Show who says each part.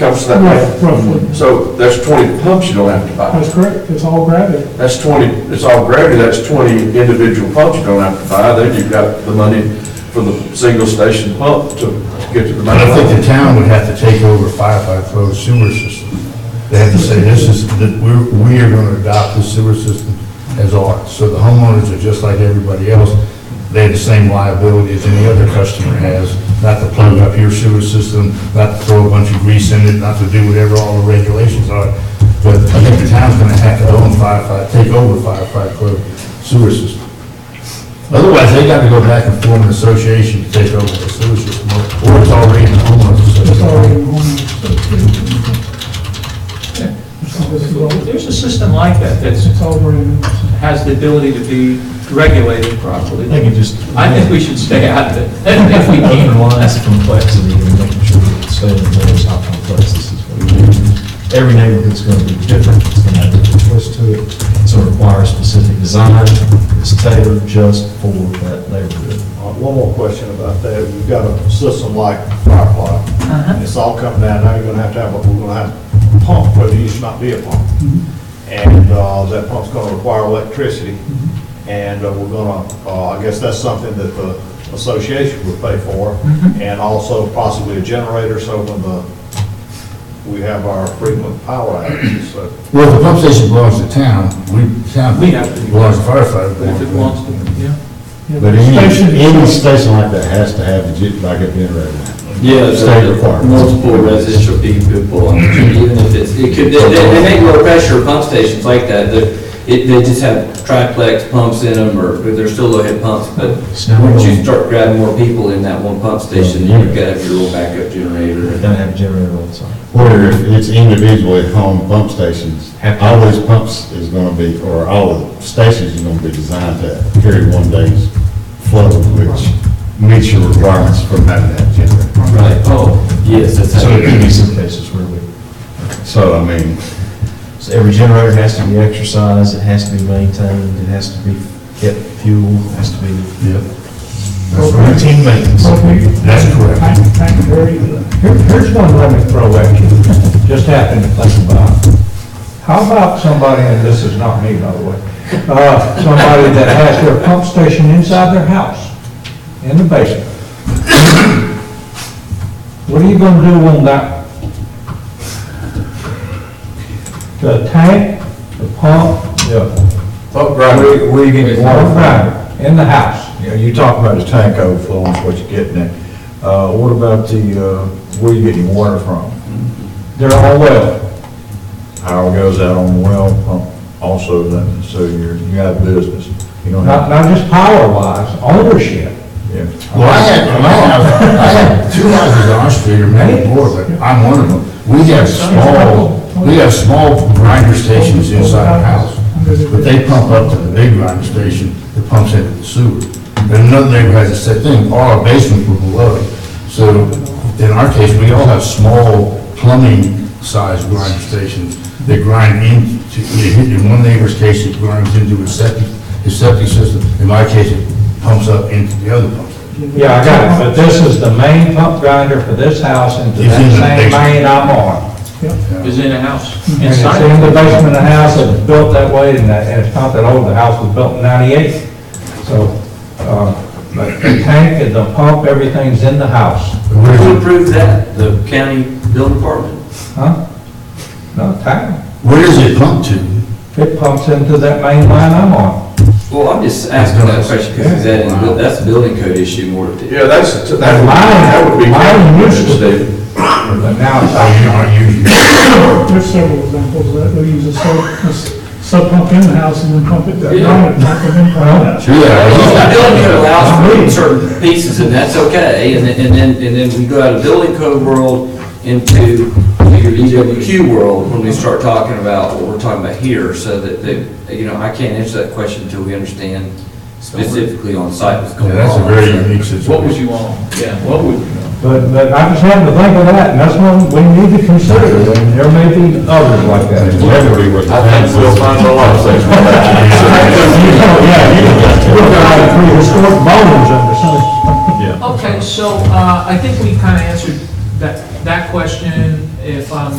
Speaker 1: comes that
Speaker 2: Rough-
Speaker 1: way.
Speaker 2: Roughly,
Speaker 1: So that's 20 pumps you don't have to buy.
Speaker 2: that's correct, it's all gravity.
Speaker 1: That's 20, it's all gravity, that's 20 individual pumps you don't have to buy. Then you've got the money for the single station pump to to get to the main
Speaker 3: But I think
Speaker 1: line.
Speaker 3: the town would have to take over firefighter code sewer system. They have to say, this is, that we're, we are gonna adopt the sewer system as ours. So the homeowners are just like everybody else. They have the same liability as any other customer has, not to plug up your sewer system, not to throw a bunch of grease in it, not to do whatever all the regulations are. But I think the town's gonna have to own firefighter, take over firefighter code sewer system. Otherwise, they got to go back and form an association to take over the sewer system, or or it's already in the homeowners
Speaker 2: It's already
Speaker 3: association.
Speaker 2: in Horn. So this is all-
Speaker 4: There's a system like that that
Speaker 2: It's all brand new.
Speaker 4: has the ability to be regulated properly.
Speaker 5: I think it just.
Speaker 4: I think we should stay out of it, if we can.
Speaker 5: Underlies the complexity and making sure that the state knows how complex this is. going to be. Every neighborhood's going to be different, it's going to have different twists to it, so it requires specific design, it's tailored just for that neighborhood.
Speaker 6: Uh, One more question about that. We've got a system like Firefly, and it's all coming down, now you're gonna have to have, a we're gonna have a pump, but it used to not be a pump. And uh, that pump's gonna require electricity,
Speaker 3: Mm-hmm.
Speaker 6: and uh, we're gonna, uh, I guess that's something that the association would pay for, and also possibly a generator, so when the, we have our frequent power outages, so.
Speaker 3: Well, if the pump station belongs to town, we, town
Speaker 4: We have to-
Speaker 3: belongs to firefighter.
Speaker 4: If it wants to, yeah.
Speaker 2: Yeah,
Speaker 7: But any,
Speaker 2: station is-
Speaker 7: any station like that has to have a gen- like a generator.
Speaker 8: Yeah,
Speaker 7: State
Speaker 8: so
Speaker 7: requirements.
Speaker 8: multiple residential people, I mean, even if it's, it could, they, they they make low pressure pump stations like that, that it, they just have triplex pumps in them, or, but they're still low head pumps, but once you start grabbing more people in that one pump station, you've got to have your little backup generator.
Speaker 5: They're going to have a generator on site.
Speaker 7: Where if it's individual at home pump stations,
Speaker 5: Have to-
Speaker 7: all those pumps is gonna be, or all the stations is gonna be designed to carry one day's flow, which meets your requirements for having that generator.
Speaker 8: Right, oh, yes, that's
Speaker 5: So
Speaker 8: how.
Speaker 5: there could be some cases where we,
Speaker 7: So, I mean,
Speaker 5: so every generator has to be exercised, it has to be maintained, it has to be kept fueled, it has to be.
Speaker 3: That's routine maintenance. That's correct.
Speaker 9: Thank thank you very Here- Here's one let me throw at you, just happened to think about. How about somebody, and this is not me, by the way, uh, somebody that has their pump station inside their house, in the basement? What are you gonna do on that? The tank, the pump, the
Speaker 1: Pump grinder.
Speaker 9: you getting water from? In the house.
Speaker 6: Yeah, you talk about the tank overflow is what you're getting at. Uh, what about the, uh, where you getting your water from?
Speaker 9: They're all well.
Speaker 6: Power goes out on well pump also then, so you're, you got business. You don't
Speaker 9: Not,
Speaker 6: have,
Speaker 9: not just power wise, ownership.
Speaker 6: yeah.
Speaker 3: Well, I had, my house, I had two houses on our street, or many more, but I'm one of them. We have small, we have small grinder stations inside our house, but they pump up to the big grinder station that pumps into the sewer. And another neighbor has the same thing, all our basements were below it. So in our case, we all have small plumbing-sized grinder stations that grind into, in one neighbor's case, it grinds into his septic, his septic system. In my case, it pumps up into the other pump station.
Speaker 9: Yeah, I got it, but this is the main pump grinder for this house and to
Speaker 3: It's in the
Speaker 9: that same
Speaker 3: basement.
Speaker 9: main I'm on.
Speaker 4: Is in a house,
Speaker 9: And it's
Speaker 4: inside.
Speaker 9: in the basement of the house, it was built that way, and that, and it's not that old, the house was built in ninety-eight. So, uh, but the tank and the pump, everything's in the house,
Speaker 8: Who approved that? The county building department?
Speaker 9: huh? No, tank,
Speaker 3: Where does it pump to?
Speaker 9: it pumps into that main line I'm on.
Speaker 8: Well, I'm just asking that question because that, is- that's a building code issue more than.
Speaker 1: Yeah, that's, that would,
Speaker 9: Mine-
Speaker 1: that would be.
Speaker 9: mine used to
Speaker 1: Steve.
Speaker 9: But now it's,
Speaker 3: Oh, you
Speaker 9: out.
Speaker 3: aren't using it.
Speaker 2: There's several examples of that, they'll use a sub, a s- sub pump in the house and then pump it down, pump it in,
Speaker 3: Oh,
Speaker 2: pump it out.
Speaker 8: The building code allows for certain pieces, and that's okay, and then, and then, and then we go out of building code world into your EWQ world when we start talking about what we're talking about here, so that, that, you know, I can't answer that question until we understand specifically on site what's going
Speaker 3: Yeah,
Speaker 8: on.
Speaker 3: that's a very unique situation.
Speaker 4: What would you want? Yeah, what would,
Speaker 9: but, but I just happened to think of that, and that's one we need to consider, and there may be others like that.
Speaker 7: it'll never be what the
Speaker 1: I
Speaker 7: town
Speaker 1: think we'll
Speaker 7: was.
Speaker 1: find a lot of things.
Speaker 9: Yeah, you can, we're gonna have prehistoric bones under some.
Speaker 4: Okay, so uh, I think we kind of answered that, that question if I'm